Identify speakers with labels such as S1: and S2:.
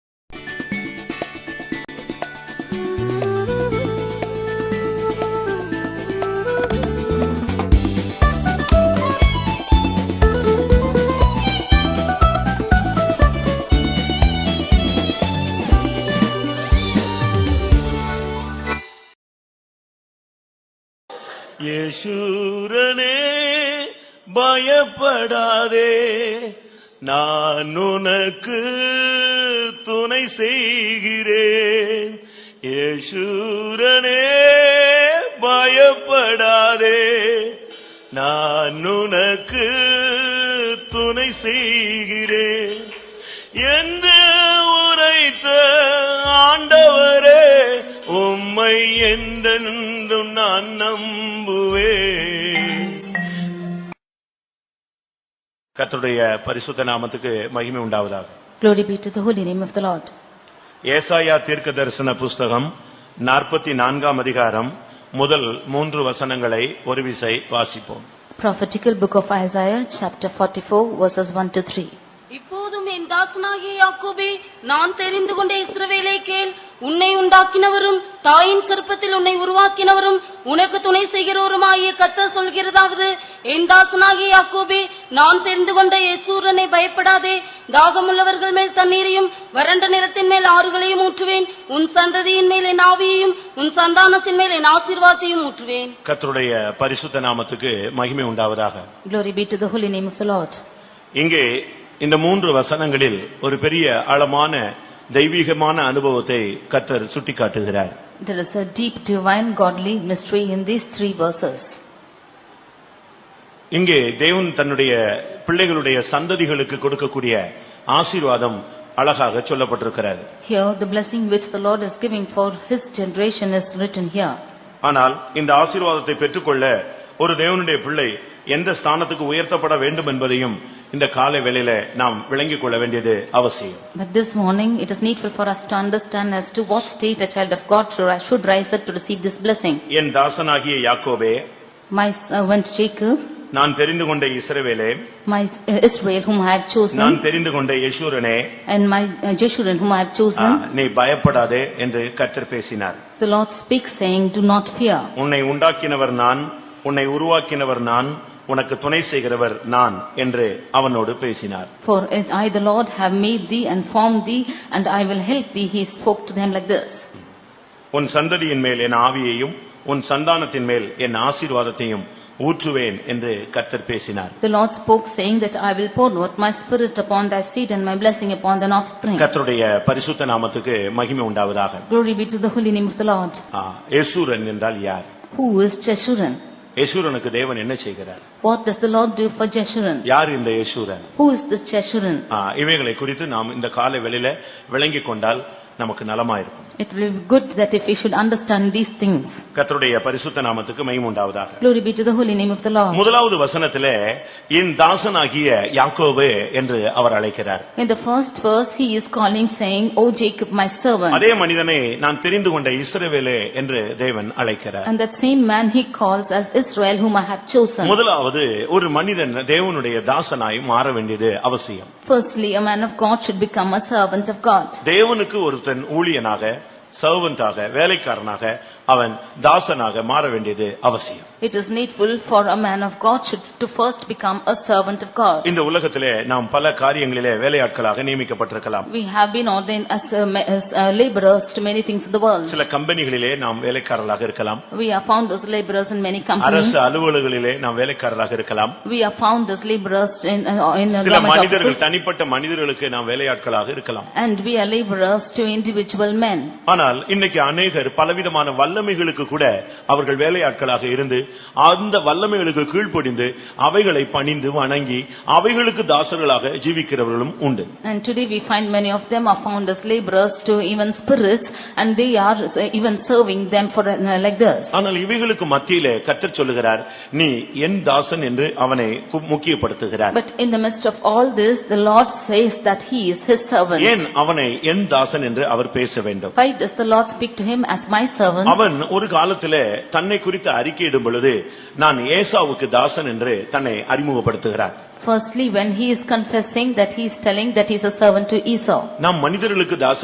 S1: யேசூரனே பயப்படாதே நான் உனக்கு துணை செய்கிறேன் யேசூரனே பயப்படாதே நான் உனக்கு துணை செய்கிறேன் என்று உரைத்த ஆண்டவரே உம்மை என்றென்றும் நான் நம்புவேன் கர்த்தருடைய பரிசுத்த நாமத்துக்கு மகிமை உண்டாவதாக
S2: Glory be to the holy name of the Lord.
S1: ஏசாயா தீர்க்க தரிசன புஸ்தகம் நாற்பத்தி நான்காம் அதிகாரம் முதல் மூன்று வசனங்களை ஒரு விசை வாசிப்போம்
S2: Prophetical book of Isaiah, chapter 44, verses 1 to 3.
S3: இப்போதும் என் தாசனாகிய யாக்கோபே நான் தெரிந்து கொண்ட இஸ்ரவேலே கேள் உன்னை உண்டாக்கினவரும் தாயின் கற்பத்தில் உன்னை உருவாக்கினவரும் உனக்கு துணை செய்கிறவருமாகிய கர்த்தர் சொல்கிறதாவது என் தாசனாகிய யாக்கோபே நான் தெரிந்து கொண்ட யேசூரனை பயப்படாதே தாகமுள்ளவர்கள் மேல் தண்ணீரையும் வறண்ட நிலத்தின் மேல் ஆறுகளையும் ஊற்றுவேன் உன் சந்ததியின் மேல் என் ஆவியையும் உன் சந்தானத்தின் மேல் என் ஆசீர்வாதத்தையும் ஊற்றுவேன்
S1: கர்த்தருடைய பரிசுத்த நாமத்துக்கு மகிமை உண்டாவதாக
S2: Glory be to the holy name of the Lord.
S1: இங்கே இந்த மூன்று வசனங்களில் ஒரு பெரிய ஆழமான தெய்வீகமான அனுபவத்தை கர்த்தர் சுட்டிக்காட்டுகிறார்
S2: There is a deep divine godly mystery in these three verses.
S1: இங்கே தேவன் தன்னுடைய பிள்ளைகளுடைய சந்ததிகளுக்கு கொடுக்கக்கூடிய ஆசீர்வாதம் அழகாக சொல்லப்பட்டிருக்கிறார்
S2: Here, the blessing which the Lord is giving for his generation is written here.
S1: ஆனால் இந்த ஆசீர்வாதத்தை பெற்றுக்கொள்ள ஒரு தேவனுடைய பிள்ளை எந்த ஸ்தானத்துக்கு உயர்த்தப்பட வேண்டும் என்பதையும் இந்த காலை வேளையில நாம் விளங்கிக் கொள்ள வேண்டியது அவசியம்
S2: But this morning, it is needful for us to understand as to what state a child of God should ri- should rise up to receive this blessing.
S1: என் தாசனாகிய யாக்கோபே
S2: My servant Jacob,
S1: நான் தெரிந்து கொண்ட இஸ்ரவேலே
S2: my uh, Israel whom I have
S1: நான்
S2: chosen,
S1: தெரிந்து கொண்ட யேசூரனே
S2: and my uh, Jeshurun whom I have
S1: ah,
S2: chosen,
S1: நீ பயப்படாதே என்று கர்த்தர் பேசினார்
S2: The Lord speaks saying, Do not fear.
S1: உன்னை உண்டாக்கினவர் நான் உன்னை உருவாக்கினவர் நான் உனக்கு துணை செய்கிறவர் நான் என்று அவனோடு பேசினார்
S2: For as I the Lord have made thee and formed thee, and I will help thee. He spoke to them like this.
S1: உன் சந்ததியின் மேல் என் ஆவியையும் உன் சந்தானத்தின் மேல் என் ஆசீர்வாதத்தையும் ஊற்றுவேன் என்று கர்த்தர் பேசினார்
S2: The Lord spoke saying that I will pour out my spirit upon thy seed and my blessing upon thine offspring.
S1: கர்த்தருடைய பரிசுத்த நாமத்துக்கு மகிமை உண்டாவதாக
S2: Glory be to the holy name of the Lord.
S1: ஆ, யேசூரன் என்றால் யார்
S2: Who is Jeshurun?
S1: யேசூரனுக்கு தேவன் என்ன செய்கிறார்
S2: What does the Lord do for Jeshurun?
S1: யார் இந்த யேசூரன்
S2: Who is this Jeshurun?
S1: ஆ, இவைகளை குறித்து நாம் இந்த காலை வெளியில விளங்கிக் கொண்டால் நமக்கு நலமாயிருக்கும்
S2: It will be good that if we should understand these things.
S1: கர்த்தருடைய பரிசுத்த நாமத்துக்கு மகிமை உண்டாவதாக
S2: Glory be to the holy name of the Lord.
S1: முதலாவது வசனத்திலே என் தாசனாகிய யாக்கோபு என்று அவர் அழைக்கிறார்
S2: In the first verse, he is calling saying, O Jacob, my servant.
S1: அதே மனிதனை நான் தெரிந்து கொண்ட இஸ்ரவேலே என்று தேவன் அழைக்கிறார்
S2: And that same man he calls as Israel whom I have chosen.
S1: முதலாவது ஒரு மனிதன் தேவனுடைய தாசனாய் மாற வேண்டியது அவசியம்
S2: Firstly, a man of God should become a servant of God.
S1: தேவனுக்கு ஒருத்தன் ஊழியனாக சர்வன்டாக வேலைக்காரனாக அவன் தாசனாக மாற வேண்டியது அவசியம்
S2: It is needful for a man of God should to first become a servant of God.
S1: இந்த உலகத்திலே நாம் பல காரியங்களிலே வேலையாட்களாக நியமிக்கப்பட்டிருக்கலாம்
S2: We have been ordained as, uh, ma- as uh, laborers to many things in the world.
S1: சில கம்பெனிகளிலே நாம் வேலைக்காரர்களாக இருக்கலாம்
S2: We are found as laborers in many companies.
S1: அரசு அலுவலகங்களிலே நாம் வேலைக்காரராக இருக்கலாம்
S2: We are found as laborers in uh, in uh,
S1: சில
S2: government
S1: மனிதர்கள்
S2: offices.
S1: தனிப்பட்ட மனிதர்களுக்கு நாம் வேலையாட்களாக இருக்கலாம்
S2: And we are laborers to individual men.
S1: ஆனால் இன்னைக்கு அநேகர் பலவிதமான வல்லமைகளுக்கு கூட அவர்கள் வேலையாட்களாக இருந்து அந்த வல்லமைகளுக்கு கீழ்ப்படிந்து அவைகளை பணிந்து வணங்கி அவைகளுக்கு தாசர்களாக ஜீவிக்கிறவர்களும் உண்டு
S2: And today we find many of them are found as laborers to even spirits and they are uh, even serving them for uh, like this.
S1: ஆனால் இவைகளுக்கு மத்தியிலே கர்த்தர் சொல்லுகிறார் நீ என் தாசன் என்று அவனை கு- முக்கியப்படுத்துகிறார்
S2: But in the midst of all this, the Lord says that he is his servant.
S1: ஏன் அவனை என் தாசன் என்று அவர் பேச வேண்டும்
S2: Why does the Lord speak to him as my servant?
S1: அவன் ஒரு காலத்திலே தன்னை குறித்து அறிக்கையிடும் பொழுது நான் ஏசாவுக்கு தாசன் என்று தன்னை அறிமுகப்படுத்துகிறார்
S2: Firstly, when he is confessing that he is telling that he is a servant to Esau.
S1: நாம் மனிதர்களுக்கு தாசன்